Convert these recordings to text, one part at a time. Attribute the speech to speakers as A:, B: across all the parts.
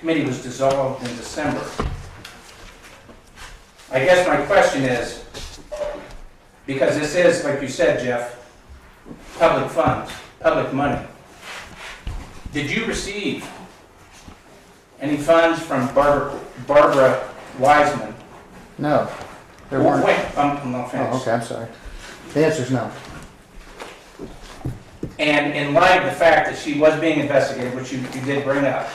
A: Committee was dissolved in December. I guess my question is, because this is, like you said, Jeff, public funds, public money. Did you receive any funds from Barbara, Barbara Wiseman?
B: No, there weren't.
A: Wait, I'm, I'm not
B: Oh,
A: finished.
B: okay, I'm sorry. The answer's no.
A: And in light of the fact that she was being investigated, which you, you did bring up,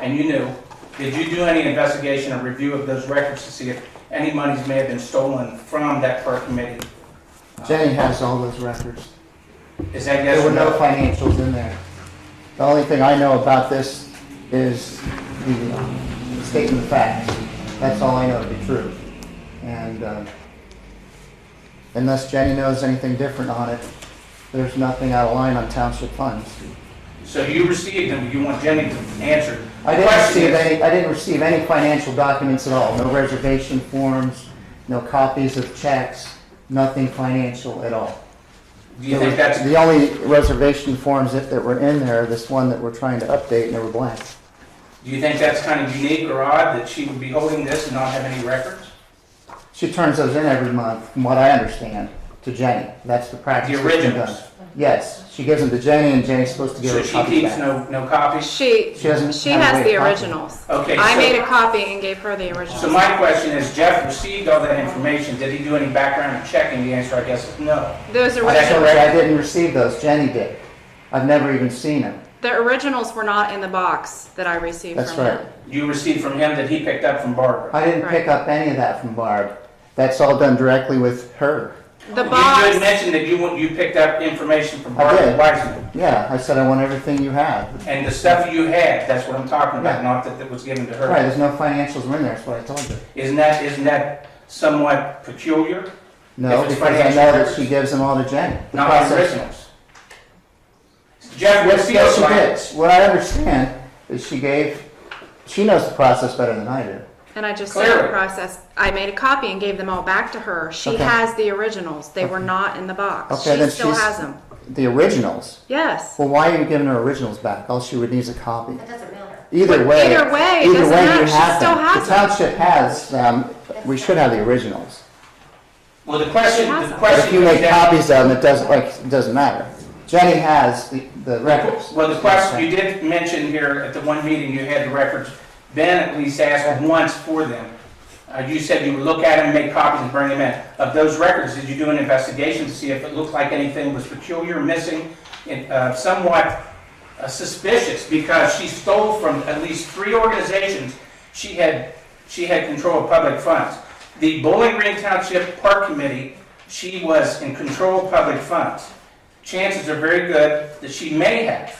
A: and you knew, did you do any investigation or review of those records to see if any monies may have been stolen from that park committee?
B: Jenny has all those records.
A: Is that yes
B: There
A: or
B: were no
A: no?
B: financials in there. The only thing I know about this is the uh, statement of facts. That's all I know to be true. And uh, unless Jenny knows anything different on it, there's nothing out of line on township funds.
A: So you received them, you want Jenny to answer.
B: I
A: The
B: didn't
A: question
B: receive
A: is-
B: any, I didn't receive any financial documents at all, no reservation forms, no copies of checks, nothing financial at all.
A: Do you think that's,
B: The only reservation forms that, that were in there, this one that we're trying to update, and they were blank.
A: do you think that's kind of unique or odd that she would be holding this and not have any records?
B: She turns those in every month, from what I understand, to Jenny. That's the practice.
A: The
B: that's been
A: originals.
B: done. Yes, she gives them to Jenny, and Jenny's supposed to give her
A: So
B: a
A: she
B: copy
A: keeps
B: back.
A: no, no copies?
C: She,
B: She doesn't
C: she
B: have a
C: has
B: way
C: the
B: of copying.
C: originals.
A: Okay,
C: I
A: so-
C: made a copy and gave her the
A: So
C: originals.
A: my question is, Jeff received all that information, did he do any background checking? The answer, I guess, is no. That's
C: Those
B: So
C: originals,
A: correct.
B: I didn't receive those, Jenny did. I've never even seen them.
C: the originals were not in the box that I received
B: That's
C: from
B: right.
C: him.
A: you received from him that he picked up from Barbara.
B: I didn't pick up any of that from Barb. That's all done directly with her.
C: The
A: You did
C: box,
A: mention that you, want- you picked up information from
B: I
A: Barbara
B: did.
A: Wiseman.
B: Yeah, I said I want everything you have.
A: And the stuff you had, that's what I'm talking about,
B: Yeah.
A: not that that was given to
B: Right,
A: her.
B: there's no financials were in there, that's what I told you.
A: Isn't that, isn't that somewhat peculiar?
B: No,
A: If it's
B: because I
A: financial
B: know that
A: records.
B: she gives them all to Jenny. The
A: Not
B: process-
A: the originals. Jeff
B: Yes,
A: received
B: yes, she
A: like,
B: did. What I understand is she gave, she knows the process better than I do.
C: and I just said
A: Clearly.
C: the process, I made a copy and gave them all back to her. She
B: Okay.
C: has the originals. They were not in the box.
B: Okay,
C: She
B: then
C: still
B: she's-
C: has them.
B: The originals.
C: Yes.
B: Well, why are you giving her originals back? All she would need is a copy.
D: That doesn't matter.
B: Either
C: But
B: way.
C: either way, it
B: either
C: doesn't
B: way, you
C: matter. She
B: have
C: still
B: them.
C: has
B: The
C: them.
B: township has, um, we should have the originals.
A: well, the question,
C: She has
A: the
C: them.
B: But if
A: question
B: you
A: comes
B: make
A: down-
B: copies of them, it doesn't, like, it doesn't matter. Jenny has the, the records.
A: Well, the question, you did mention here at the one meeting, you had the records, Ben at least asked once for them. Uh, you said you would look at them, make copies and bring them in. Of those records, did you do an investigation to see if it looked like anything was peculiar, missing, and uh, somewhat uh, suspicious? Because she stole from at least three organizations, she had, she had control of public funds. The Bowling Green Township Park Committee, she was in control of public funds. Chances are very good that she may have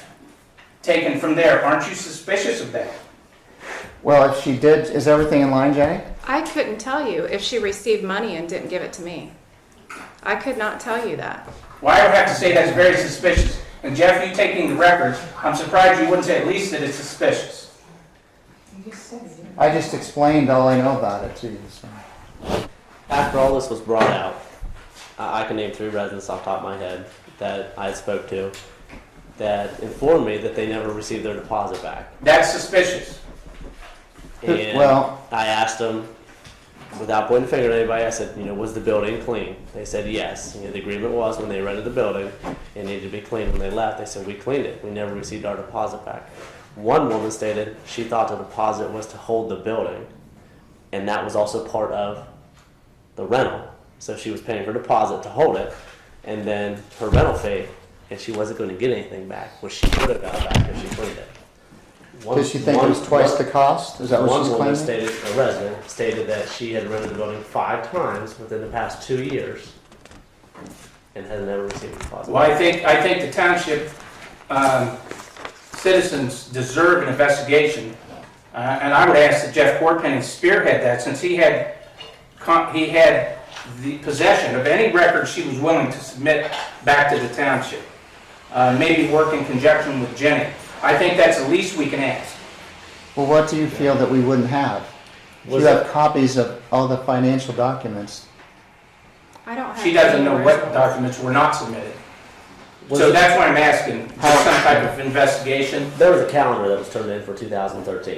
A: taken from there. Aren't you suspicious of that?
B: Well, if she did, is everything in line, Jenny?
C: I couldn't tell you if she received money and didn't give it to me. I could not tell you that.
A: Well, I would have to say that's very suspicious. And Jeff, you taking the records, I'm surprised you wouldn't say at least that it's suspicious.
B: I just explained all I know about it to you, so.
E: after all this was brought out, I, I can name three residents off the top of my head that I spoke to that informed me that they never received their deposit back.
A: That's suspicious.
E: And
B: Well-
E: I asked them, without pointing the finger at anybody, I said, you know, was the building clean? They said yes. You know, the agreement was when they rented the building, it needed to be cleaned. When they left, they said we cleaned it. We never received our deposit back. One woman stated she thought the deposit was to hold the building, and that was also part of the rental. So she was paying her deposit to hold it, and then her rental fee, and she wasn't going to get anything back, which she would have got back if she cleaned it. One-
B: Does she think it was
E: one-
B: twice
E: one-
B: the cost? Is that what she's
E: one woman
B: claiming?
E: stated, a resident stated that she had rented the building five times within the past two years and has never received a deposit.
A: Well, I think, I think the township um, citizens deserve an investigation. Uh, And I would ask that Jeff Corpenny spearhead that since he had, con- he had the possession of any record she was willing to submit back to the township. Uh, Maybe work in conjunction with Jenny. I think that's the least we can ask.
B: Well, what do you feel that we wouldn't have? You
E: Was
B: have copies of all the financial documents.
C: I don't have.
A: She doesn't
C: any
A: know what
C: originals.
A: documents were not submitted.
E: Was
A: So
E: it-
A: that's why I'm asking, just some type of investigation.
E: there was a calendar that was turned in for 2013.